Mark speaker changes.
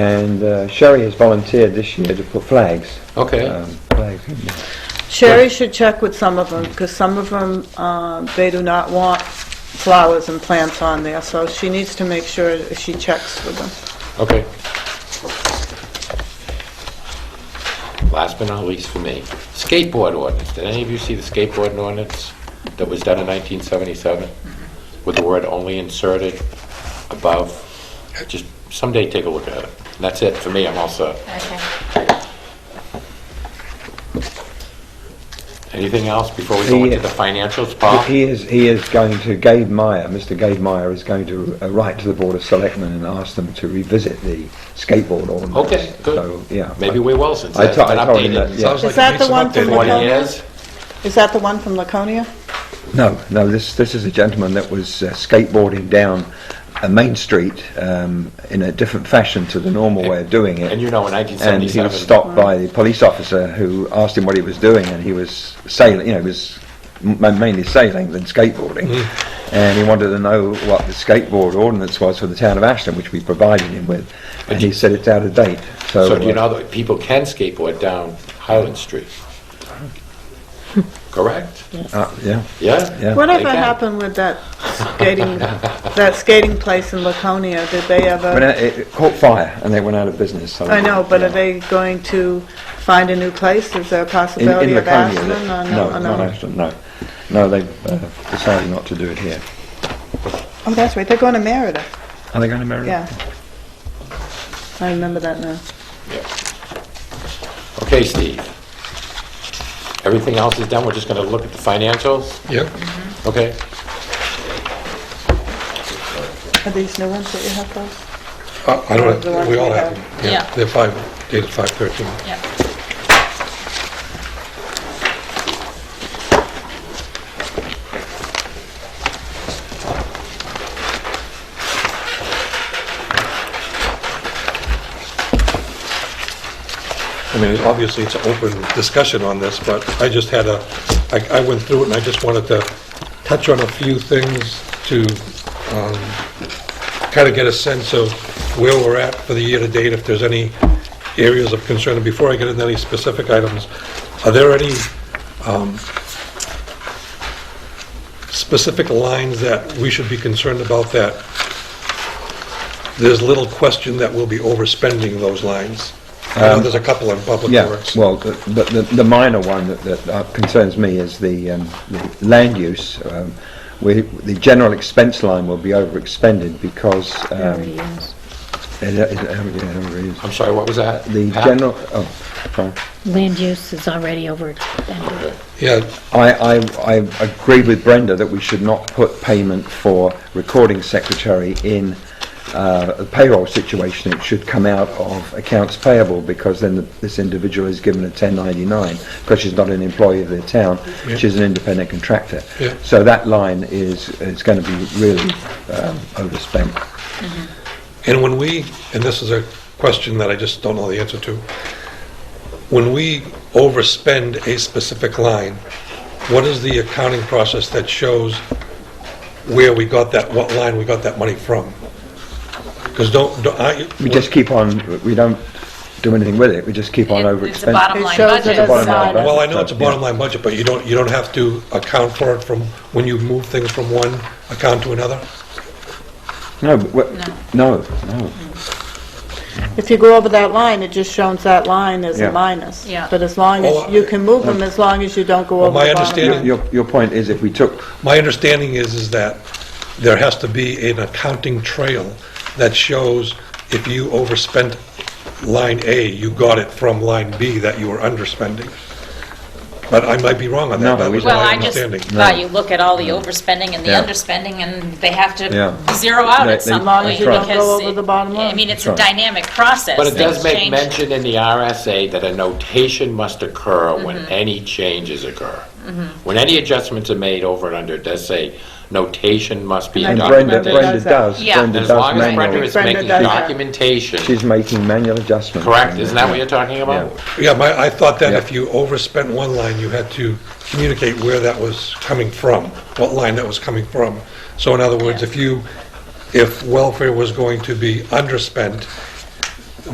Speaker 1: And uh, Sherry has volunteered this year to put flags.
Speaker 2: Okay.
Speaker 1: um, Flags. in there.
Speaker 3: Sherry should check with some of them, because some of them, uh, they do not want flowers and plants on there, so she needs to make sure that she checks with them.
Speaker 2: Okay. Last but not least for me, skateboard ordinance. Did any of you see the skateboard ordinance that was done in 1977? With the word "only" inserted above? Just someday take a look at it. And that's it for me, I'm all set.
Speaker 4: Okay.
Speaker 2: Anything else before we go into the financials, Paul?
Speaker 1: He is, he is going to, Gabe Meyer, Mr. Gabe Meyer is going to uh, write to the Board of Selectmen and ask them to revisit the skateboard ordinance.
Speaker 2: Okay, good.
Speaker 1: So, yeah.
Speaker 2: Maybe we're well since
Speaker 1: I
Speaker 2: that's been
Speaker 1: to- I told him that,
Speaker 2: updated.
Speaker 1: yeah.
Speaker 5: Sounds like
Speaker 3: Is
Speaker 5: it
Speaker 3: that
Speaker 5: needs
Speaker 3: the
Speaker 5: some
Speaker 3: one from
Speaker 5: updating.
Speaker 3: the
Speaker 2: 20 years?
Speaker 3: Is that the one from Laconia?
Speaker 1: No, no, this, this is a gentleman that was uh, skateboarding down a main street um, in a different fashion to the normal way of doing it.
Speaker 2: And you know, in
Speaker 1: and he was
Speaker 2: 1977,
Speaker 1: stopped by the police officer who asked him what he was doing, and he was sailing. You know, he was m- mainly sailing than skateboarding, and he wanted to know what the skateboard ordinance was for the town of Ashton, which we provided him with, and he said it's out of date. So,
Speaker 2: so do you
Speaker 1: uh,
Speaker 2: know that people can skateboard down Highland Street? Correct?
Speaker 1: uh, yeah,
Speaker 2: Yeah?
Speaker 1: yeah.
Speaker 3: Whatever
Speaker 2: Okay.
Speaker 3: happened with that skating, that skating place in Laconia, did they
Speaker 1: But uh,
Speaker 3: ever,
Speaker 1: it it caught fire, and they went out of business. So,
Speaker 3: I know, but
Speaker 1: yeah.
Speaker 3: are they going to find a new place? Is there a
Speaker 1: in, in
Speaker 3: possibility of
Speaker 1: Laconia,
Speaker 3: Aspen?
Speaker 1: that-
Speaker 3: or
Speaker 1: no,
Speaker 3: or
Speaker 1: not Ashton, no, no. They've uh, decided not to do it here.
Speaker 3: Oh, that's right, they're going to Merida,
Speaker 1: Are they going to marry?
Speaker 3: yeah. I remember that now.
Speaker 2: Okay, Steve. Everything else is done, we're just gonna look at the financials,
Speaker 5: Yep.
Speaker 2: okay?
Speaker 3: Are these new ones that you have, those?
Speaker 5: Uh, I don't
Speaker 3: The
Speaker 5: have,
Speaker 3: ones
Speaker 5: we all
Speaker 3: we
Speaker 5: have
Speaker 3: have.
Speaker 5: them.
Speaker 4: Yeah.
Speaker 5: They're five, dated 5/13.
Speaker 4: Yeah.
Speaker 5: I mean, it's- obviously, it's an open discussion on this, but I just had a, I, I went through it and I just wanted to touch on a few things to kind of get a sense of where we're at for the year-to-date, if there's any areas of concern. And before I get into any specific items, are there any um, specific lines that we should be concerned about that there's little question that we'll be overspending those lines? I know there's a couple in public
Speaker 1: Um, Yeah,
Speaker 5: works.
Speaker 1: well, the, the- the, the minor one that, that uh, concerns me is the, um, the land use. Um, we, the general expense line will be over expended because, um, it, it, it already is.
Speaker 2: I'm sorry, what was that?
Speaker 1: The
Speaker 2: Pat?
Speaker 1: general, oh, sorry.
Speaker 6: Land use is already overextended.
Speaker 5: Yeah,
Speaker 1: I, I, I agree with Brenda that we should not put payment for recording secretary in uh, a payroll situation. It should come out of accounts payable because then the, this individual is given a 1099 because she's not an employee of the town. She's an independent contractor.
Speaker 5: Yeah.
Speaker 1: So that line is is going to be really um, overspent.
Speaker 5: And when we, and this is a question that I just don't know the answer to, when we overspend a specific line, what is the accounting process that shows where we got that, what line we got that money from? Because don't, don't- I...
Speaker 1: We just keep on. We don't do anything with it. We just keep on overexpending.
Speaker 4: It's a bottom
Speaker 3: It
Speaker 4: line
Speaker 3: shows it
Speaker 4: budget.
Speaker 3: as
Speaker 1: Bottom line,
Speaker 3: side.
Speaker 1: right?
Speaker 5: Well, I know it's a bottom line budget, but you don't, you don't have to account for it from, when you move things from one account to another?
Speaker 1: No, but we're- no, no.
Speaker 3: If you go over that line, it just shows that line as
Speaker 1: Yeah.
Speaker 3: a minus.
Speaker 4: Yeah.
Speaker 3: But as long as,
Speaker 5: Well, uh,
Speaker 3: you can move them as long as you don't go over
Speaker 5: my
Speaker 3: the bottom
Speaker 5: understanding-
Speaker 3: line.
Speaker 1: Your, your point is if we took
Speaker 5: My understanding is, is that there has to be an accounting trail that shows if you overspent line A, you got it from line B that you were underspending. But I might be wrong on
Speaker 1: No,
Speaker 5: that, that
Speaker 1: we-
Speaker 5: was
Speaker 4: Well,
Speaker 5: my
Speaker 4: I just
Speaker 5: understanding.
Speaker 4: thought you look at all the overspending and the
Speaker 1: Yeah.
Speaker 4: underspending, and they have
Speaker 1: Yeah.
Speaker 4: to zero out
Speaker 1: They-
Speaker 4: at
Speaker 1: they-
Speaker 4: some
Speaker 1: Long
Speaker 4: point.
Speaker 1: as you don't
Speaker 3: go
Speaker 4: because
Speaker 3: over
Speaker 4: it-
Speaker 3: the bottom
Speaker 4: I
Speaker 3: line.
Speaker 4: mean, it's a
Speaker 1: That's right.
Speaker 4: dynamic process.
Speaker 2: But it does
Speaker 4: Things
Speaker 2: make
Speaker 4: change.
Speaker 2: mention in the RSA that a notation must occur when any changes occur. When any adjustments are made over and under, it does say notation must be
Speaker 3: And
Speaker 1: And
Speaker 3: Doc-
Speaker 1: Brenda,
Speaker 2: documented.
Speaker 3: Brenda
Speaker 1: Brenda
Speaker 3: does that.
Speaker 1: does,
Speaker 4: Yeah.
Speaker 1: Brenda
Speaker 2: As
Speaker 1: does
Speaker 2: long as Brenda
Speaker 1: manual,
Speaker 2: is
Speaker 3: Brenda
Speaker 2: making
Speaker 3: does that.
Speaker 2: documentation,
Speaker 1: she's making manual adjustments.
Speaker 2: correct, isn't that what you're talking about?
Speaker 5: Yeah, my, I thought that
Speaker 1: Yeah.
Speaker 5: if you overspent one line, you had to communicate where that was coming from, what line that was coming from. So in other words, if you, if welfare was going to be underspent